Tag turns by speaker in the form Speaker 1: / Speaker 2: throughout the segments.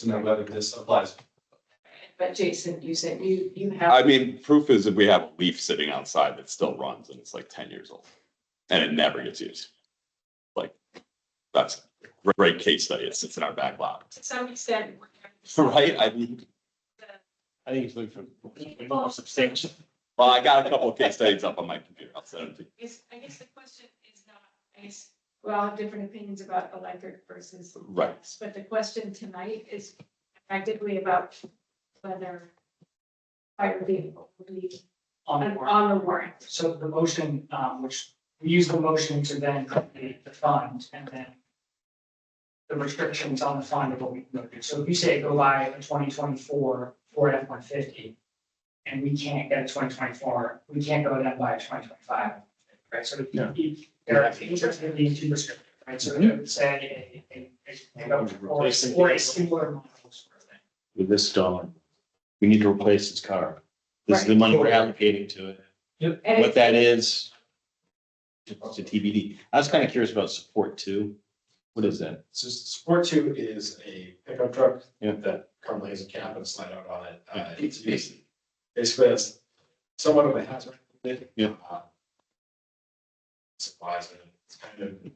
Speaker 1: to know whether this applies.
Speaker 2: But Jason, you said you, you
Speaker 3: I
Speaker 2: have,
Speaker 3: mean, proof is if we have a leaf sitting outside that still runs and it's like ten years old and it never gets used. Like, that's a great case study. It sits in our back lot,
Speaker 2: to some extent,
Speaker 3: right? I mean,
Speaker 4: I think it's looking for more substantial.
Speaker 3: well, I got a couple of case studies up on my computer. I'll send them to you.
Speaker 2: is, I guess the question is not, I guess, we all have different opinions about electric versus.
Speaker 3: Right.
Speaker 2: gas, But the question tonight is practically about whether fire vehicle will be
Speaker 4: On the
Speaker 2: on
Speaker 4: warrant.
Speaker 2: on the warrant.
Speaker 4: So the motion, um, which we use the motion to then create the fund and then the restrictions on the fund of what we can do. So if you say go buy a twenty twenty-four Ford F one fifty and we can't get a twenty twenty-four, we can't go then buy a twenty twenty-five, right? So if you- if there are things that are being too restrictive, right? So it would say a, a, a- a, or a or a similar model. sort of thing.
Speaker 5: with this dollar. We need to replace this car. This is the money we're allocating to it.
Speaker 2: And
Speaker 5: What
Speaker 2: it's-
Speaker 5: that is. It's a TBD. I was kind of curious about support too. What is that?
Speaker 6: So Sport Two is a pickup truck
Speaker 5: Yeah.
Speaker 6: that currently has a cab and a slide out on it. Uh,
Speaker 5: Yeah.
Speaker 6: it's used, basically, it's somewhat of a hazard.
Speaker 5: Yeah.
Speaker 6: Uh, Supplies, and it's kind of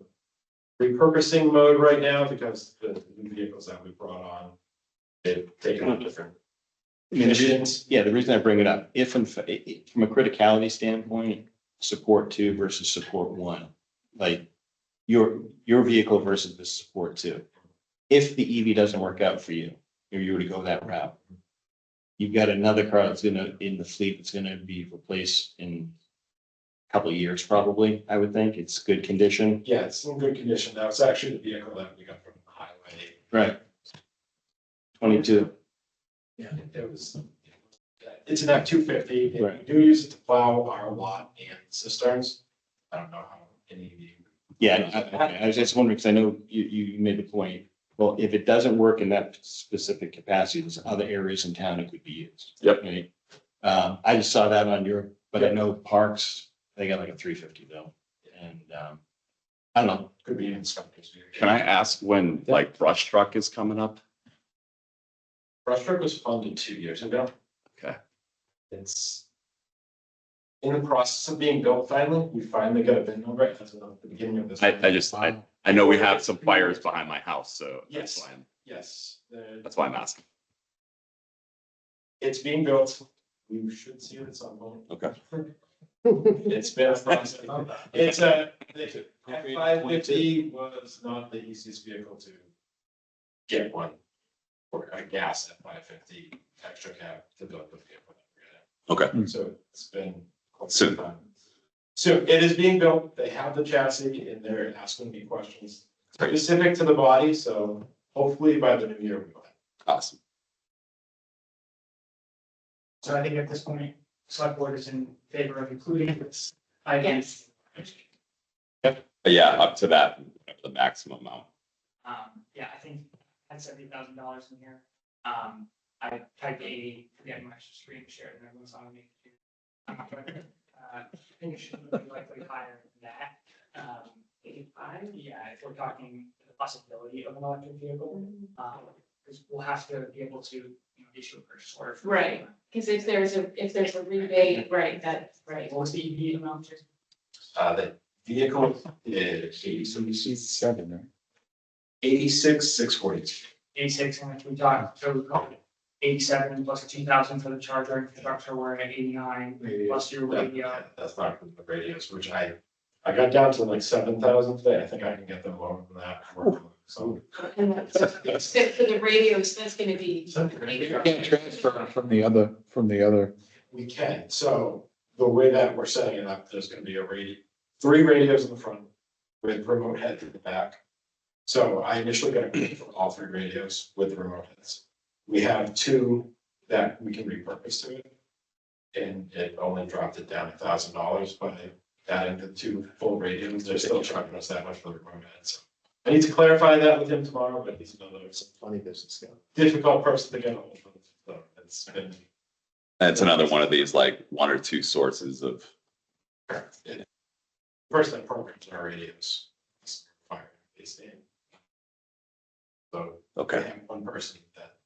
Speaker 6: repurposing mode right now because the new vehicles that we brought on, they've taken on different
Speaker 5: I mean, the reason-
Speaker 6: missions.
Speaker 5: Yeah, the reason I bring it up, if in, fa- i- i- from a criticality standpoint, support two versus support one, like your, your vehicle versus the support two. If the EV doesn't work out for you, or you were to go that route, you've got another car that's gonna, in the fleet, that's gonna be replaced in a couple of years probably, I would think. It's good condition.
Speaker 6: Yeah, it's in good condition now. It's actually the vehicle that we got from the highway.
Speaker 5: Right. Twenty-two.
Speaker 6: Yeah, it was, it's an F two fifty, and we
Speaker 5: Right.
Speaker 6: do use it to plow our lot and cisterns. I don't know how any of you.
Speaker 5: Yeah, I- I, I was just wondering, because I know you, you made the point, well, if it doesn't work in that specific capacity, there's other areas in town it could be used.
Speaker 3: Yep.
Speaker 5: Right? Um, I just saw that on your, but I know parks, they got like a three fifty though, and, um, I don't know,
Speaker 6: Could be in Scotty's.
Speaker 3: Can I ask when like brush truck is coming up?
Speaker 6: Brush truck was funded two years ago.
Speaker 3: Okay.
Speaker 6: It's in the process of being built finally. We finally got a bin number at the beginning of this.
Speaker 3: I, I just, I, I know we have some fires behind my house, so that's
Speaker 6: Yes.
Speaker 3: why I'm,
Speaker 6: Yes, the-
Speaker 3: that's why I'm asking.
Speaker 6: it's being built. We should see it at some point.
Speaker 3: Okay.
Speaker 6: It's been a process. It's a, the F five fifty was not the easiest vehicle to get one. Or a gas F five fifty extra cab to build the vehicle.
Speaker 3: Okay.
Speaker 1: Mm.
Speaker 6: So it's been. quite some
Speaker 3: Soon.
Speaker 6: time. So it is being built, they have the chassis and they're asking me questions
Speaker 3: Great.
Speaker 6: specific to the body, so hopefully by the new year we will. have.
Speaker 3: Awesome.
Speaker 4: So I think at this point, select board is in favor of including this. item.
Speaker 2: Yes.
Speaker 3: But yeah, up to that, the maximum amount.
Speaker 4: Um, yeah, I think I had seventy thousand dollars in here. Um, I typed a, forget my screen share and everyone's on me. Uh, I think it should be likely higher than that. Um,
Speaker 2: Eighty-five?
Speaker 4: yeah, if we're talking the possibility of an electric vehicle, um, because we'll have to be able to, you know, issue a purchase order. for-
Speaker 2: Right. Because if there's a, if there's a rebate, right, that's right.
Speaker 4: What was the EV amount?
Speaker 6: Uh, the vehicle is eighty-six,
Speaker 1: seven, right?
Speaker 6: eighty-six, six forty-two.
Speaker 4: eighty-six, and if we talk, so we call it eighty-seven plus two thousand for the charger infrastructure, we're at eighty-nine,
Speaker 6: Maybe
Speaker 4: plus your
Speaker 6: that-
Speaker 4: radio.
Speaker 6: yeah, That's not from the radios, which I, I got down to like seven thousand today, I think I can get them lower than that. So.
Speaker 2: And that's- except for the radios, that's gonna be,
Speaker 1: Can't transfer from the other, from the other.
Speaker 6: We can, so the way that we're setting it up, there's gonna be a radio, three radios in the front with remote head to the back. So I initially got a quote for all three radios with the remote heads. We have two that we can repurpose to it. And it only dropped it down a thousand dollars by adding the two full radios, they're still charging us that much for the remote heads. I need to clarify that with him tomorrow, but he's another
Speaker 1: Funny business.
Speaker 6: difficult person to get hold of, so it's been.
Speaker 3: And it's another one of these like one or two sources of
Speaker 6: First, that programs our radios. Fire, they stay. So
Speaker 3: Okay.
Speaker 6: I am one person that